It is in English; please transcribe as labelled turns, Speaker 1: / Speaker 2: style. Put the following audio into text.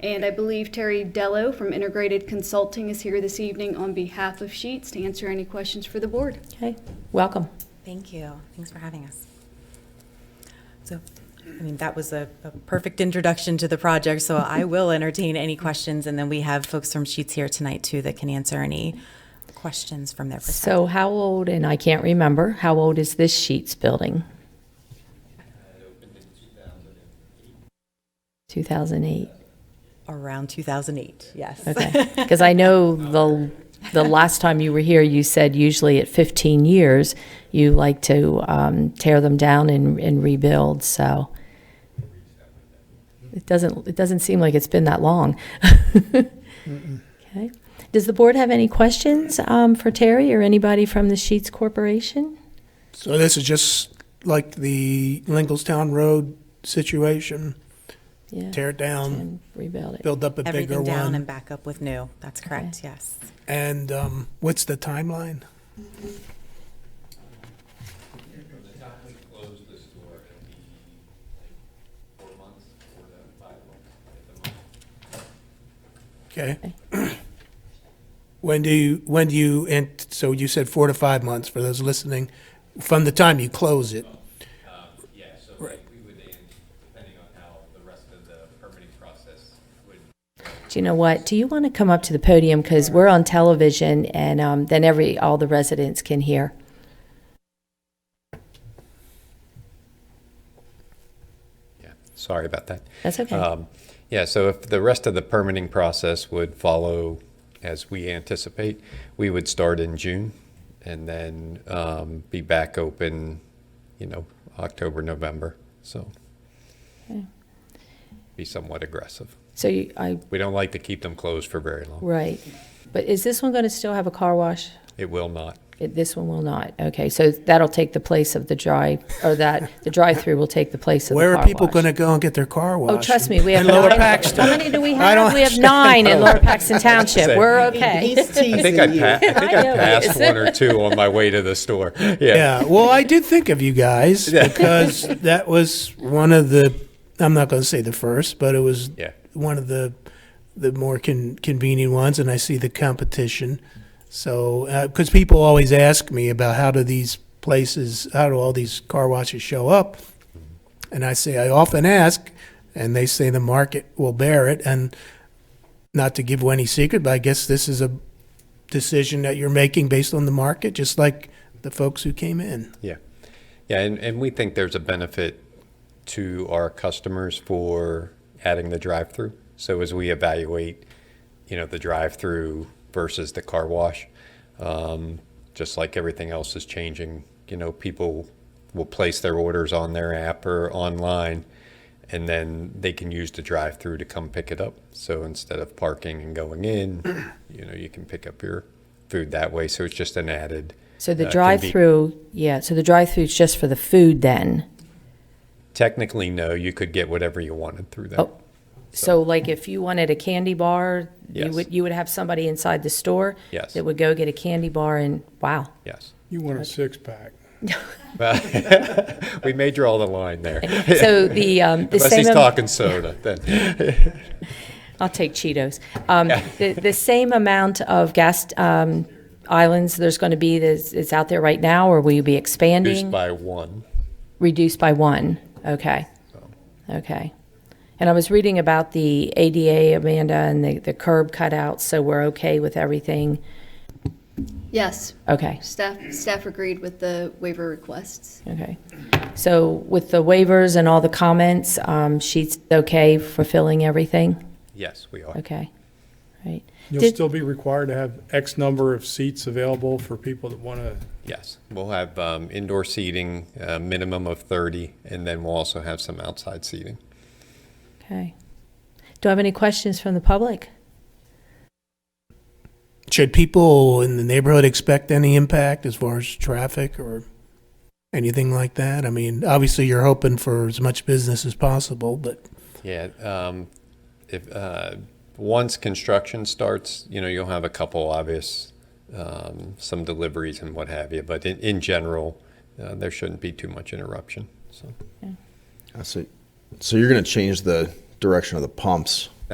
Speaker 1: And I believe Terry Dello from Integrated Consulting is here this evening on behalf of Sheets to answer any questions for the board.
Speaker 2: Okay, welcome.
Speaker 3: Thank you. Thanks for having us. So, I mean, that was a, a perfect introduction to the project, so I will entertain any questions, and then we have folks from Sheets here tonight too that can answer any questions from their perspective.
Speaker 2: So how old, and I can't remember, how old is this Sheets building? 2008,
Speaker 3: Around 2008, yes.
Speaker 2: okay. Because I know the, the last time you were here, you said usually at 15 years, you like to um, tear them down and and rebuild, so. It doesn't, it doesn't seem like it's been that long. Okay. Does the board have any questions um, for Terry or anybody from the Sheets Corporation?
Speaker 4: So this is just like the Lingelstown Road situation,
Speaker 2: Yeah.
Speaker 4: tear it down,
Speaker 2: And rebuild it.
Speaker 4: build up a bigger
Speaker 3: Everything down and
Speaker 4: one.
Speaker 3: back up with new. That's correct, yes.
Speaker 4: And um, what's the timeline? Okay.
Speaker 2: Okay.
Speaker 4: When do you, when do you, and so you said four to five months for those listening, from the time you close it?
Speaker 5: Yeah, so
Speaker 4: Right.
Speaker 5: we would end, depending on how the rest of the permitting process would
Speaker 2: Do you know what? Do you want to come up to the podium? Because we're on television and um, then every, all the residents can hear.
Speaker 5: Yeah, sorry about that.
Speaker 2: That's okay.
Speaker 5: Um, Yeah, so if the rest of the permitting process would follow as we anticipate, we would start in June and then um, be back open, you know, October, November, so.
Speaker 2: Okay.
Speaker 5: Be somewhat aggressive.
Speaker 2: So you, I,
Speaker 5: We don't like to keep them closed for very long.
Speaker 2: right. But is this one going to still have a car wash?
Speaker 5: It will not.
Speaker 2: It- This one will not. Okay, so that'll take the place of the dry, or that, the drive-through will take the place of the car
Speaker 4: Where
Speaker 2: wash.
Speaker 4: are people going to go and get their car washed?
Speaker 2: Oh, trust me, we have.
Speaker 4: In Lower
Speaker 2: nine-
Speaker 4: Paxton.
Speaker 2: How many do we
Speaker 4: I
Speaker 2: have?
Speaker 4: don't
Speaker 2: We have nine in Lower Paxton Township.
Speaker 5: Say.
Speaker 2: We're okay.
Speaker 6: He's teasing
Speaker 5: I think I, pa- I, think
Speaker 2: I
Speaker 5: I
Speaker 2: know.
Speaker 5: passed one or two on my way to the store. Yeah.
Speaker 4: Yeah, well, I did think of you guys because that was one of the. I'm not going to say the first, but it was
Speaker 5: Yeah.
Speaker 4: one of the the more con- convenient ones, and I see the competition. So, because people always ask me about how do these places, how do all these car washes show up, and I say I often ask, and they say the market will bear it, and not to give away any secret, but I guess this is a decision that you're making based on the market, just like the folks who came in.
Speaker 5: Yeah. Yeah, and, and we think there's a benefit to our customers for adding the drive-through. So as we evaluate, you know, the drive-through versus the car wash, um, just like everything else is changing, you know, people will place their orders on their app or online, and then they can use the drive-through to come pick it up. So instead of parking and going in, you know, you can pick up your food that way. So it's just an added.
Speaker 2: So the
Speaker 5: uh, conven-
Speaker 2: drive-through, yeah, so the drive-through is just for the food then?
Speaker 5: Technically, no. You could get whatever you wanted through that.
Speaker 2: Oh, so like if you wanted a candy bar, you
Speaker 5: Yes.
Speaker 2: would, you would have somebody inside the store?
Speaker 5: Yes.
Speaker 2: That would go get a candy bar and, wow.
Speaker 5: Yes.
Speaker 7: You want a six-pack.
Speaker 5: We may draw the line there.
Speaker 2: So the, um, the
Speaker 5: Unless
Speaker 2: same,
Speaker 5: he's
Speaker 2: am-
Speaker 5: talking soda, then.
Speaker 2: I'll take Cheetos. Um, the, the same amount of gas, um, islands there's going to be that's, it's out there right now, or will you be
Speaker 5: Reduced
Speaker 2: expanding?
Speaker 5: by one.
Speaker 2: Reduced by one, okay. Okay. And I was reading about the ADA, Amanda, and the, the curb cutouts, so we're okay with everything?
Speaker 1: Yes,
Speaker 2: Okay.
Speaker 1: staff, staff agreed with the waiver requests.
Speaker 2: Okay. So with the waivers and all the comments, um, she's okay for filling everything?
Speaker 5: Yes, we are.
Speaker 2: Okay. Right.
Speaker 7: You'll
Speaker 2: Did-
Speaker 7: still be required to have X number of seats available for people that want to.
Speaker 5: Yes. We'll have um, indoor seating, a minimum of 30, and then we'll also have some outside seating.
Speaker 2: Okay. Do I have any questions from the public?
Speaker 4: Should people in the neighborhood expect any impact as far as traffic or anything like that? I mean, obviously, you're hoping for as much business as possible, but
Speaker 5: Yeah, um, if, uh, once construction starts, you know, you'll have a couple obvious, um, some deliveries and what have you, but in, in general, uh, there shouldn't be too much interruption, so.
Speaker 8: I see. So you're going to change the direction of the pumps